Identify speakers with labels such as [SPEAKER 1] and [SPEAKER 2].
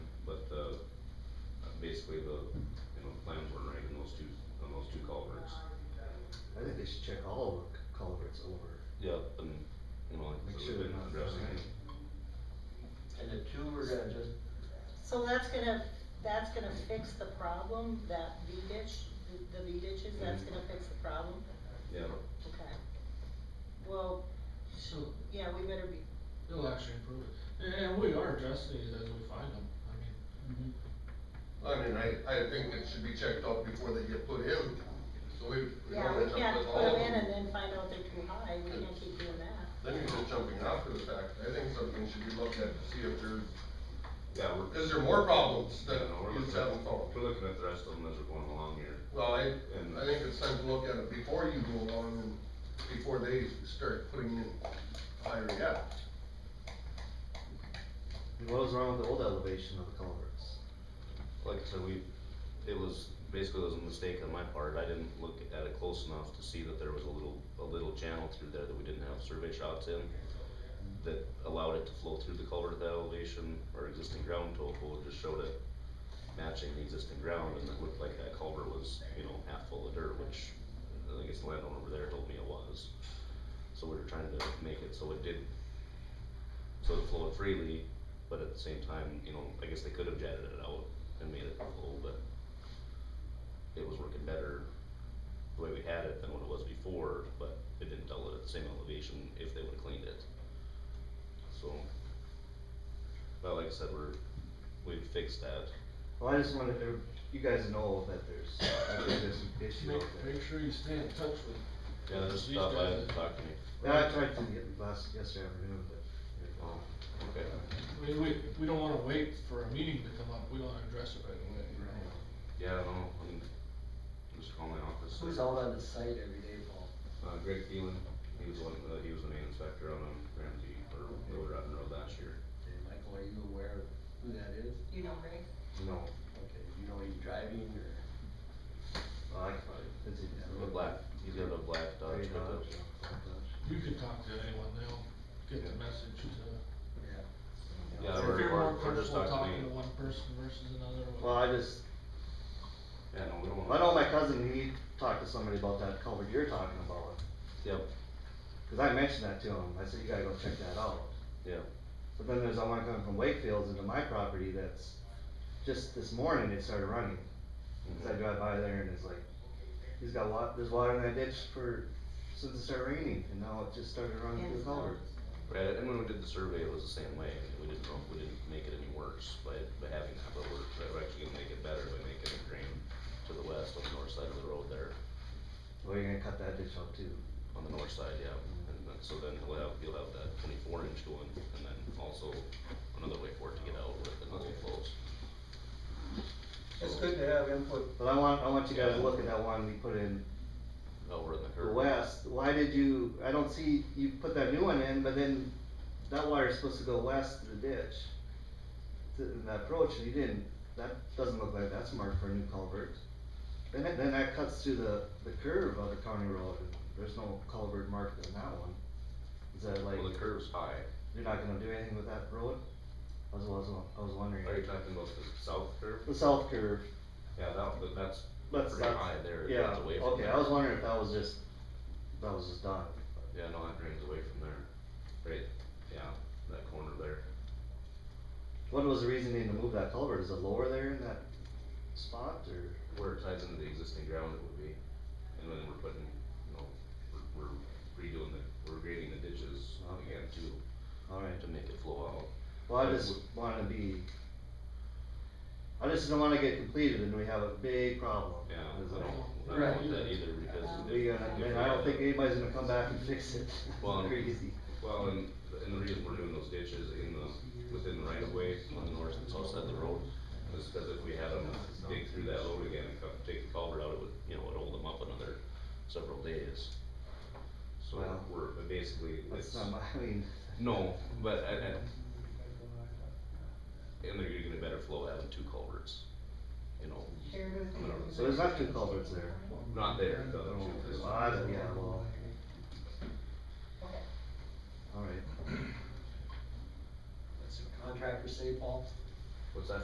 [SPEAKER 1] uh, basically the, you know, plans were right in those two, on those two culverts.
[SPEAKER 2] I think they should check all the c- culverts over.
[SPEAKER 1] Yep. And, you know, like,
[SPEAKER 2] Make
[SPEAKER 1] so
[SPEAKER 2] sure
[SPEAKER 1] we've
[SPEAKER 2] they're
[SPEAKER 1] been
[SPEAKER 2] not
[SPEAKER 1] addressing
[SPEAKER 2] dry.
[SPEAKER 1] it.
[SPEAKER 3] And the two we're gonna just,
[SPEAKER 4] So that's gonna, that's gonna fix the problem, that V ditch, the- the V ditches, that's gonna fix the problem?
[SPEAKER 1] Yeah,
[SPEAKER 4] Okay. Well,
[SPEAKER 5] So,
[SPEAKER 4] yeah, we better be,
[SPEAKER 5] it'll actually improve it, and, and we are addressing these as we find them, I mean.
[SPEAKER 6] I mean, I, I think it should be checked out before they get put in, so we. we
[SPEAKER 4] yeah,
[SPEAKER 6] don't
[SPEAKER 4] we
[SPEAKER 6] end up
[SPEAKER 4] can't
[SPEAKER 6] with
[SPEAKER 4] put
[SPEAKER 6] all of
[SPEAKER 4] them in and then find out they're too high, we can't keep doing that.
[SPEAKER 6] Then you're just jumping after the fact, I think something should be looked at to see if there's,
[SPEAKER 1] yeah, we're.
[SPEAKER 6] is there more problems
[SPEAKER 1] Yeah,
[SPEAKER 6] that
[SPEAKER 1] no, we're
[SPEAKER 6] you
[SPEAKER 1] looking
[SPEAKER 6] just
[SPEAKER 1] at-
[SPEAKER 6] haven't found?
[SPEAKER 1] We're looking at the rest of them as we're going along here.
[SPEAKER 6] Well, I,
[SPEAKER 1] And-
[SPEAKER 6] I think it's time to look at it before you go on, and before they start putting in higher yet.
[SPEAKER 2] And What was wrong with the old elevation of the culverts?
[SPEAKER 1] Like I said, we, it was, basically it was a mistake on my part, I didn't look at it close enough to see that there was a little, a little channel through there that we didn't have survey shots in. That allowed it to flow through the culvert at that elevation, our existing ground topo just showed it matching the existing ground, and it looked like that culvert was, you know, half full of dirt, which, I guess the landowner over there told me it was. So we were trying to make it so it did, so it flowed freely, but at the same time, you know, I guess they could have jetted it out and made it full, but it was working better the way we had it than what it was before, but it didn't tell it at the same elevation if they would've cleaned it. So, but like I said, we're, we've fixed that.
[SPEAKER 2] Well, I just wanted to, you guys know that there's, that there's an issue out
[SPEAKER 5] Make,
[SPEAKER 2] there.
[SPEAKER 5] make sure you stay in touch with.
[SPEAKER 1] Yeah, there's
[SPEAKER 5] these
[SPEAKER 1] stuff
[SPEAKER 5] guys.
[SPEAKER 1] I talked to me.
[SPEAKER 2] Yeah, I tried to get last, yesterday afternoon, but. they're gone.
[SPEAKER 1] Oh, Okay.
[SPEAKER 5] I mean, we, we don't wanna wait for a meeting to come up, we wanna address it right away.
[SPEAKER 1] Yeah, I don't know, I mean, just call my office.
[SPEAKER 3] who's out on the site every day, Paul?
[SPEAKER 1] Uh, Greg Thielen, he was one, uh, he was the main inspector on, um, Ramsey, or, Little Rotten Road last year.
[SPEAKER 3] Okay, Michael, are you aware of who that is?
[SPEAKER 4] You know, Greg?
[SPEAKER 2] No,
[SPEAKER 3] Okay, you know he's driving or?
[SPEAKER 2] well, I can probably, it's easy.
[SPEAKER 1] A black, he's got a black Dodge
[SPEAKER 2] Very
[SPEAKER 1] pickup.
[SPEAKER 2] Dodge, yeah, black Dodge.
[SPEAKER 5] You can talk to anyone, they'll get the message to.
[SPEAKER 3] Yeah.
[SPEAKER 1] Yeah,
[SPEAKER 5] If
[SPEAKER 1] we're-
[SPEAKER 5] you're
[SPEAKER 1] we're-
[SPEAKER 5] more
[SPEAKER 1] we're just
[SPEAKER 5] comfortable
[SPEAKER 1] talking to
[SPEAKER 5] talking to
[SPEAKER 1] you.
[SPEAKER 5] one person versus another.
[SPEAKER 2] Well, I just,
[SPEAKER 1] Yeah, no, we don't
[SPEAKER 2] I
[SPEAKER 1] wanna.
[SPEAKER 2] know my cousin, he talked to somebody about that culvert you're talking about,
[SPEAKER 1] Yep,
[SPEAKER 2] cause I mentioned that to him, I said, you gotta go check that out.
[SPEAKER 1] yep.
[SPEAKER 2] But then there's, I wanna come from Wakefield's into my property that's, just this morning it started running.
[SPEAKER 1] mhm.
[SPEAKER 2] Cause I drive by there and it's like, he's got wa- there's water in that ditch for, since it started raining, and now it just started running through the culvert.
[SPEAKER 1] Right, and when we did the survey, it was the same way, we didn't, know- we didn't make it any worse by, by having that, but we're, we're actually gonna make it better by making it drain to the west on the north side of the road there,
[SPEAKER 2] Well, you're gonna cut that ditch out too.
[SPEAKER 1] on the north side, yeah, and then, so then he'll have, he'll have that twenty-four inch going, and then also another way for it to get out with the little flows.
[SPEAKER 3] It's good to have input.
[SPEAKER 2] But I want, I want you guys to look at that one we put in
[SPEAKER 1] Over in the
[SPEAKER 2] the
[SPEAKER 1] curve.
[SPEAKER 2] west, why did you, I don't see, you put that new one in, but then that wire's supposed to go west through the ditch. To, in that approach, and you didn't, that doesn't look like that's marked for a new culvert. Then it, then that cuts through the, the curve of the county road, and there's no culvert marked in that one. Is that like,
[SPEAKER 1] Well, the curve's high,
[SPEAKER 2] you're not gonna do anything with that road? I was, I was, I was wondering.
[SPEAKER 1] are you talking about the south curve?
[SPEAKER 2] The south curve,
[SPEAKER 1] Yeah, that, but that's
[SPEAKER 2] that's,
[SPEAKER 1] pretty
[SPEAKER 2] that's,
[SPEAKER 1] high there, it
[SPEAKER 2] yeah,
[SPEAKER 1] drains away from
[SPEAKER 2] okay,
[SPEAKER 1] there.
[SPEAKER 2] I was wondering if that was just, that was just done.
[SPEAKER 1] Yeah, no, that drains away from there, right, yeah, that corner there.
[SPEAKER 2] What was the reasoning to move that culvert? Is it lower there in that spot or?
[SPEAKER 1] where it ties into the existing ground it would be, and then we're putting, you know, we're, we're redoing the, we're grading the ditches
[SPEAKER 2] Uh-huh.
[SPEAKER 1] again too,
[SPEAKER 2] Alright,
[SPEAKER 1] to make it flow out.
[SPEAKER 2] well, I just wanna be. I just don't wanna get completed and we have a big problem.
[SPEAKER 1] Yeah, I
[SPEAKER 2] Is
[SPEAKER 1] don't,
[SPEAKER 2] it-
[SPEAKER 1] I don't want that either, because if.
[SPEAKER 2] We gonna,
[SPEAKER 1] if
[SPEAKER 2] and
[SPEAKER 1] we
[SPEAKER 2] I don't
[SPEAKER 1] have-
[SPEAKER 2] think anybody's gonna come back and fix it.
[SPEAKER 1] Well,
[SPEAKER 2] Crazy.
[SPEAKER 1] Well, and, and the reason we're doing those ditches in the, within the right of way, on the north and south side of the road, is because if we had them dig through that road again and come, take the culvert out, it would, you know, it'd hold them up another several days. So
[SPEAKER 2] Well,
[SPEAKER 1] we're, but basically,
[SPEAKER 2] That's
[SPEAKER 1] it's,
[SPEAKER 2] not my, I mean,
[SPEAKER 1] no, but I, I. And they're gonna get a better flow having two culverts, you know,
[SPEAKER 2] so there's not two culverts there.
[SPEAKER 1] not there, the other
[SPEAKER 2] Oh,
[SPEAKER 1] two, 'cause-
[SPEAKER 2] well, I don't- yeah, well, alright.
[SPEAKER 3] That's what contractors say, Paul.
[SPEAKER 1] What's that?